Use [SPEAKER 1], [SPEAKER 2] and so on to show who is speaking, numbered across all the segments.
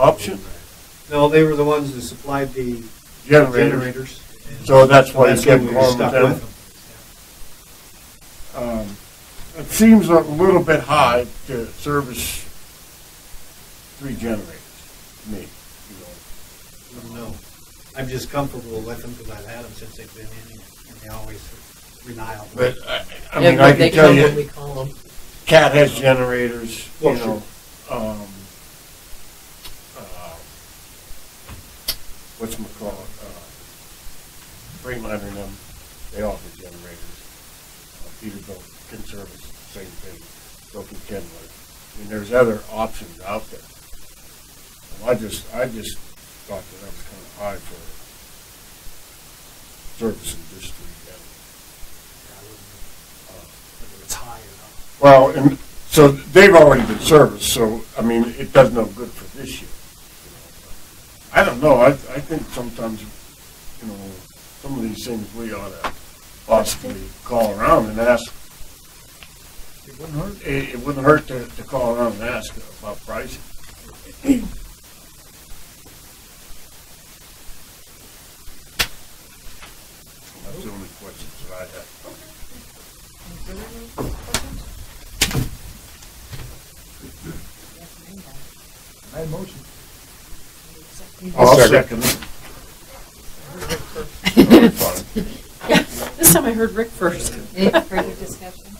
[SPEAKER 1] option?
[SPEAKER 2] No, they were the ones that supplied the
[SPEAKER 1] Generators.
[SPEAKER 2] generators.
[SPEAKER 1] So that's why you
[SPEAKER 2] That's why
[SPEAKER 1] kept
[SPEAKER 2] we
[SPEAKER 1] going
[SPEAKER 2] were
[SPEAKER 1] with
[SPEAKER 2] stuck
[SPEAKER 1] them.
[SPEAKER 2] with
[SPEAKER 1] Um, It seems a little bit high to service three generators, to me. you
[SPEAKER 2] them. No, I'm just comfortable with them because I've had them since they've been in here, and they always rely on
[SPEAKER 1] know.
[SPEAKER 2] them.
[SPEAKER 1] But uh, I, I
[SPEAKER 3] uh, Yeah,
[SPEAKER 1] mean,
[SPEAKER 3] but
[SPEAKER 1] I
[SPEAKER 3] they
[SPEAKER 1] can tell
[SPEAKER 3] come when we
[SPEAKER 1] you,
[SPEAKER 3] call them.
[SPEAKER 1] Cat has generators, you
[SPEAKER 2] Well, sure.
[SPEAKER 1] know. um, uh, What's my call, uh, Freightliner and them, they offer generators. Uh, Peterbilt can service the same thing, so can Kenworth. I mean, there's other options out there. Well, I just, I just thought that that was kind of high for servicing just three generators.
[SPEAKER 2] I wouldn't
[SPEAKER 1] Uh,
[SPEAKER 2] whether it's high or
[SPEAKER 1] well, and so they've already been serviced, so, I mean, it does no good for this year. I don't know, I, I think sometimes, you know, some of these things we ought to possibly call around and ask. It wouldn't hurt. It, it wouldn't hurt to, to call around and ask about pricing. That's the only questions that I have. I'll second it.
[SPEAKER 4] This time I heard Rick first.
[SPEAKER 3] Any further discussion?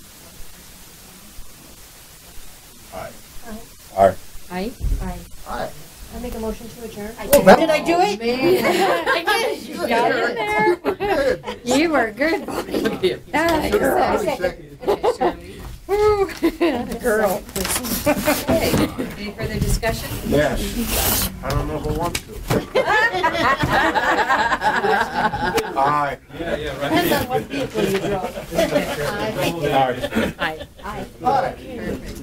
[SPEAKER 1] Aye.
[SPEAKER 3] Aye? Aye.
[SPEAKER 5] I make a motion to adjourn.
[SPEAKER 3] Did I do it? I did. You got it in there. You were good, buddy. Ah, you're
[SPEAKER 5] I
[SPEAKER 3] a
[SPEAKER 5] second.
[SPEAKER 3] Woo. Girl.
[SPEAKER 4] Hey.
[SPEAKER 3] Any further discussion?
[SPEAKER 1] Yes. I don't know if I want to. Aye.
[SPEAKER 2] not. Yeah, yeah,
[SPEAKER 5] Depends on what vehicle you draw.
[SPEAKER 2] Aye.
[SPEAKER 3] Aye.
[SPEAKER 5] Aye.
[SPEAKER 1] Aye.
[SPEAKER 3] Perfect.